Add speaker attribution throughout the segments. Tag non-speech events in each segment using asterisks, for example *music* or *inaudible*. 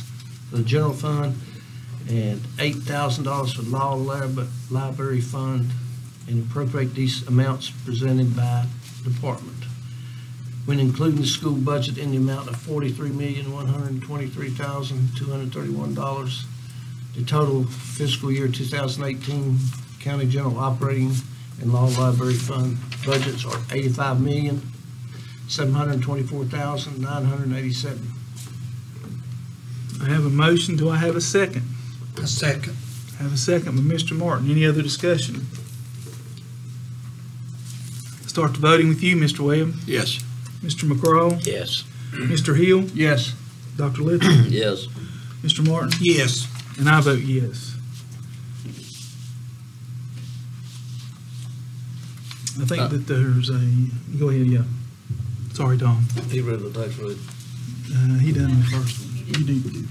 Speaker 1: for the general fund, and eight thousand dollars for law lab- library fund, and appropriate these amounts presented by department. When including the school budget in the amount of forty-three million, one hundred and twenty-three thousand, two hundred and thirty-one dollars, the total fiscal year two thousand eighteen county general operating and law library fund budgets are eighty-five million, seven hundred and twenty-four thousand, nine hundred and eighty-seven.
Speaker 2: I have a motion, do I have a second?
Speaker 3: A second.
Speaker 2: I have a second by Mr. Martin, any other discussion? Start the voting with you, Mr. Webb,
Speaker 3: Yes.
Speaker 2: Mr. McCraw,
Speaker 4: Yes.
Speaker 2: Mr. Hill,
Speaker 1: Yes.
Speaker 2: Dr. Little, *coughs*
Speaker 4: Yes.
Speaker 2: Mr. Martin,
Speaker 3: Yes.
Speaker 2: and I vote yes. I
Speaker 4: Uh,
Speaker 2: think that there's a, go ahead, yeah. Sorry, Tom,
Speaker 4: He read the tax rate.
Speaker 2: Uh, he done the first one. You do,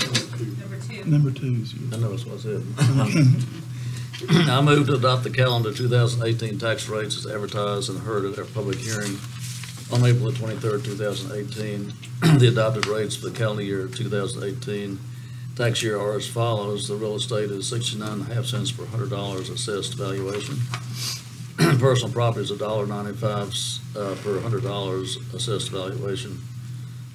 Speaker 5: Number two.
Speaker 2: number two is you.
Speaker 4: I know, that's what I said. *coughs* I move to adopt the calendar 2018 tax rates as advertised and heard at our public hearing on April the 23rd, 2018. *clears throat* The adopted rates for the calendar year 2018 tax year are as follows. The real estate is 69 and a half cents per hundred dollars assessed valuation. *clears throat* Personal property is $1.95 uh, per hundred dollars assessed valuation.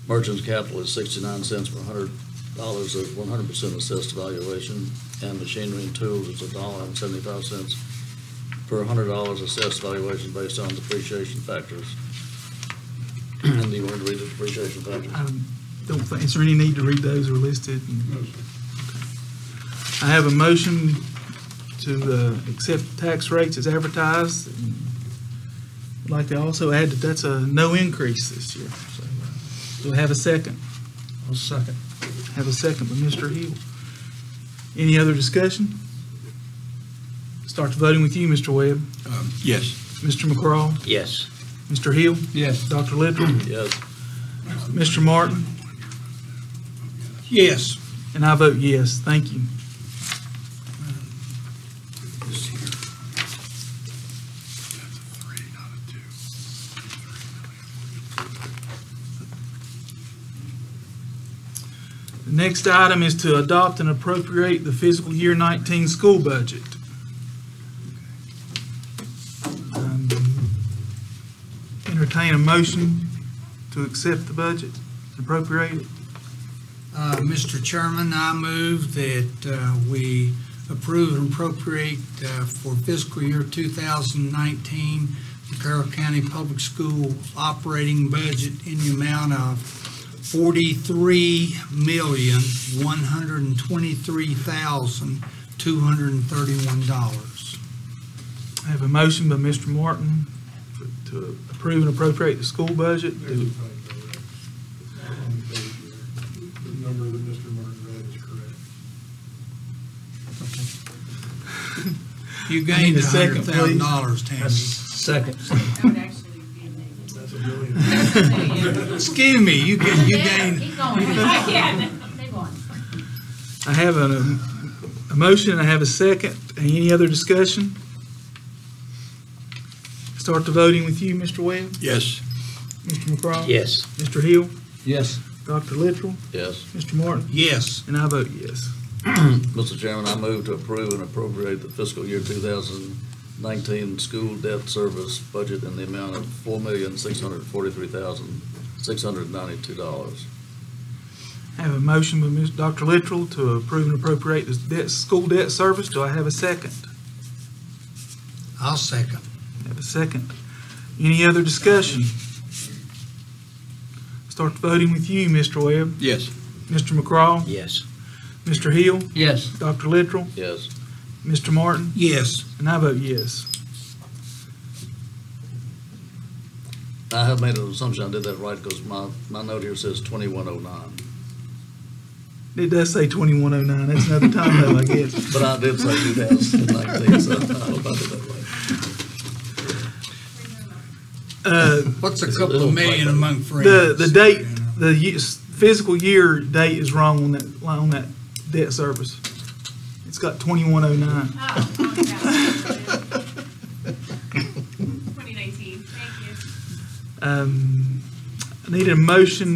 Speaker 4: Merchant's capital is 69 cents per hundred dollars at one hundred percent assessed valuation, and machinery and tools is a dollar and seventy-five cents per hundred dollars assessed valuation based on depreciation factors. *clears throat* And do you want to read the depreciation
Speaker 2: I
Speaker 4: factors?
Speaker 2: Um, don't think, is there any need to read those or listed? I have a motion to uh, accept tax rates as advertised. I'd like to also add that that's a no increase this year. So, uh, Do I have a second?
Speaker 1: I'll second.
Speaker 2: Have a second by Mr. Hill. Any other discussion? Start the voting with you, Mr. Webb,
Speaker 3: Um, Yes.
Speaker 2: Mr. McCraw,
Speaker 4: Yes.
Speaker 2: Mr. Hill,
Speaker 1: Yes.
Speaker 2: Dr. Little,
Speaker 4: Yes.
Speaker 2: Mr. Martin,
Speaker 3: Yes.
Speaker 2: And I vote yes, thank you. The next item is to adopt and appropriate the fiscal year 19 school budget. Um, Entertain a motion to accept the budget, appropriate it.
Speaker 3: Uh, Mr. Chairman, I move that uh, we approve and appropriate uh, for fiscal year 2019, the Carroll County Public School operating budget in the amount of $43,123,231.
Speaker 2: I have a motion by Mr. Martin for- to approve and appropriate the school budget. Do-
Speaker 6: The number that Mr. Martin read is correct.
Speaker 3: You
Speaker 2: I need
Speaker 3: gained
Speaker 2: a second, please.
Speaker 3: $100,000, Tammy.
Speaker 1: Second.
Speaker 5: That would actually be me.
Speaker 6: That's a million.
Speaker 3: Excuse me, you ga- you gained
Speaker 7: Keep going.
Speaker 5: *laughs* I can.
Speaker 7: Move on.
Speaker 2: I have a, a motion, I have a second. Any other discussion? Start the voting with you, Mr. Webb,
Speaker 3: Yes.
Speaker 2: Mr. McCraw.
Speaker 4: Yes.
Speaker 2: Mr. Hill,
Speaker 1: Yes.
Speaker 2: Dr. Littrell,
Speaker 4: Yes.
Speaker 2: Mr. Martin,
Speaker 3: Yes.
Speaker 2: and I vote yes.
Speaker 4: Mr. Chairman, I move to approve and appropriate the fiscal year 2019 school debt service budget in the amount of $4,643,692.
Speaker 2: I have a motion by Ms. Dr. Littrell to approve and appropriate the debt, school debt service. Do I have a second?
Speaker 3: I'll second.
Speaker 2: I Have a second. Any other discussion? Start the voting with you, Mr. Webb,
Speaker 3: Yes.
Speaker 2: Mr. McCraw,
Speaker 4: Yes.
Speaker 2: Mr. Hill,
Speaker 1: Yes.
Speaker 2: Dr. Littrell,
Speaker 4: Yes.
Speaker 2: Mr. Martin,
Speaker 3: Yes.
Speaker 2: and I vote yes.
Speaker 4: I have made an assumption I did that right because my, my note here says 2109,
Speaker 2: It does say 2109. That's another time though, I guess.
Speaker 4: but I did say 2019, so I hope I did that right.
Speaker 2: Uh,
Speaker 3: What's a
Speaker 4: It's a
Speaker 3: couple
Speaker 4: little
Speaker 3: of million
Speaker 4: fight.
Speaker 3: among friends?
Speaker 2: The, the date,
Speaker 3: you know?
Speaker 2: the ye- fiscal year date is wrong on that, on that debt service. It's got 2109.
Speaker 5: Oh, *laughs* oh, yeah. 2019, thank you.
Speaker 2: Um, I need a motion